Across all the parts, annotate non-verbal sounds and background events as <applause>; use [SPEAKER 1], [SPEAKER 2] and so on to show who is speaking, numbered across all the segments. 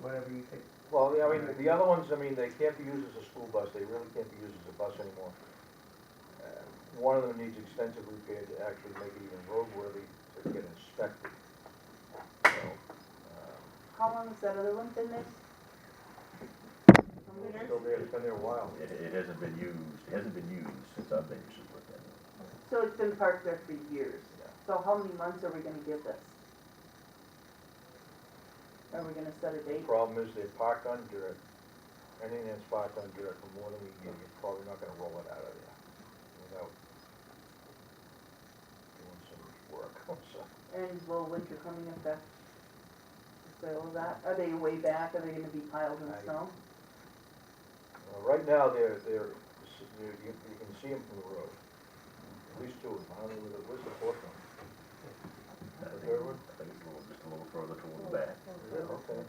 [SPEAKER 1] whatever you think.
[SPEAKER 2] Well, yeah, I mean, the other ones, I mean, they can't be used as a school bus, they really can't be used as a bus anymore. Uh, One of them needs extensive repair to actually make it even roadworthy to get inspected. So, um,
[SPEAKER 3] How long has that other one been there? From
[SPEAKER 2] it's
[SPEAKER 3] Winners?
[SPEAKER 2] Still there, it's been there a while.
[SPEAKER 4] It, it hasn't been used, it hasn't been used since I've been using with that.
[SPEAKER 3] So it's been parked there for years.
[SPEAKER 2] Yeah.
[SPEAKER 3] So how many months are we gonna give this? Are we gonna set a
[SPEAKER 2] The
[SPEAKER 3] date?
[SPEAKER 2] Problem is they're parked on dirt, anything that's parked on dirt for more than a year, you're probably not gonna roll it out of there without doing some work, <laughs> so.
[SPEAKER 3] And will winter coming affect the sale of that? Are they way back? Are they gonna be piled in
[SPEAKER 2] I-
[SPEAKER 3] snow?
[SPEAKER 2] Uh, Right now, they're, they're, s- you, you you can see them from the road. At least two of them, I don't know where the, where's the fourth one?
[SPEAKER 4] I think-
[SPEAKER 2] third one?
[SPEAKER 4] I think it's a little, just a little further toward the back.
[SPEAKER 2] Yeah, okay.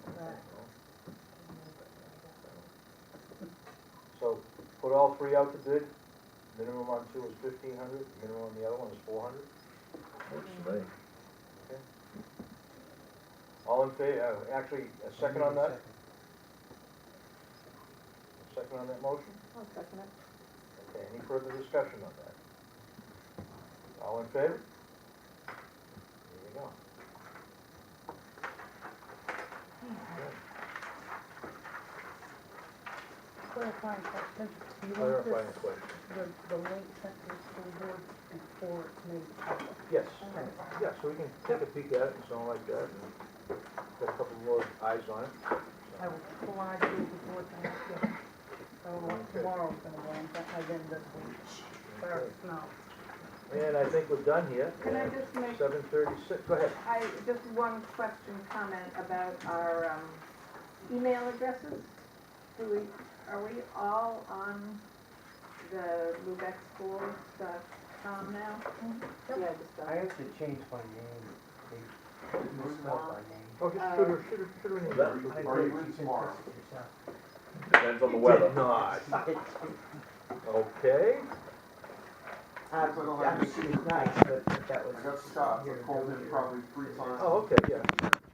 [SPEAKER 2] So, put all three out to bid, minimum on two is fifteen hundred, minimum on the other one is four hundred.
[SPEAKER 4] Works for me.
[SPEAKER 2] All in favor, uh, actually, a second on that, second on that motion? Okay, any further discussion on that? All in favor? There you go.
[SPEAKER 5] Clarifying question, do you want this,
[SPEAKER 2] Clarifying question.
[SPEAKER 5] the, the link sent to the school board before it's made public?
[SPEAKER 2] Yes,
[SPEAKER 5] Okay.
[SPEAKER 2] yeah, so we can take a peek at it and something like that, and get a couple more eyes on it.
[SPEAKER 5] I will try to do before Thanksgiving, so like,
[SPEAKER 2] Okay.
[SPEAKER 5] tomorrow's gonna go, in, but I've been this week, or,
[SPEAKER 2] Okay.
[SPEAKER 5] no.
[SPEAKER 2] And I think we're done here.
[SPEAKER 6] Can I just make,
[SPEAKER 2] Seven thirty-six, go ahead.
[SPEAKER 6] I, just one question, comment about our um, email addresses? Do we, are we all on the lubexschools.com now? uh,
[SPEAKER 3] Yeah, just
[SPEAKER 7] I
[SPEAKER 3] done.
[SPEAKER 7] have to change my name. They misspelled my name.
[SPEAKER 2] Okay, shoot Oh, her, shoot her, shoot her in the.
[SPEAKER 7] I
[SPEAKER 8] Or
[SPEAKER 7] think
[SPEAKER 8] even
[SPEAKER 7] you can
[SPEAKER 8] tomorrow.
[SPEAKER 7] fix it yourself.
[SPEAKER 4] Depends on the
[SPEAKER 2] Did not, okay.
[SPEAKER 8] I don't have
[SPEAKER 7] Um,
[SPEAKER 8] any-
[SPEAKER 7] she was nice, but but that was.
[SPEAKER 8] I got Scott, I
[SPEAKER 7] here
[SPEAKER 8] called him
[SPEAKER 7] earlier.
[SPEAKER 8] probably three times.
[SPEAKER 2] Oh, okay, yeah.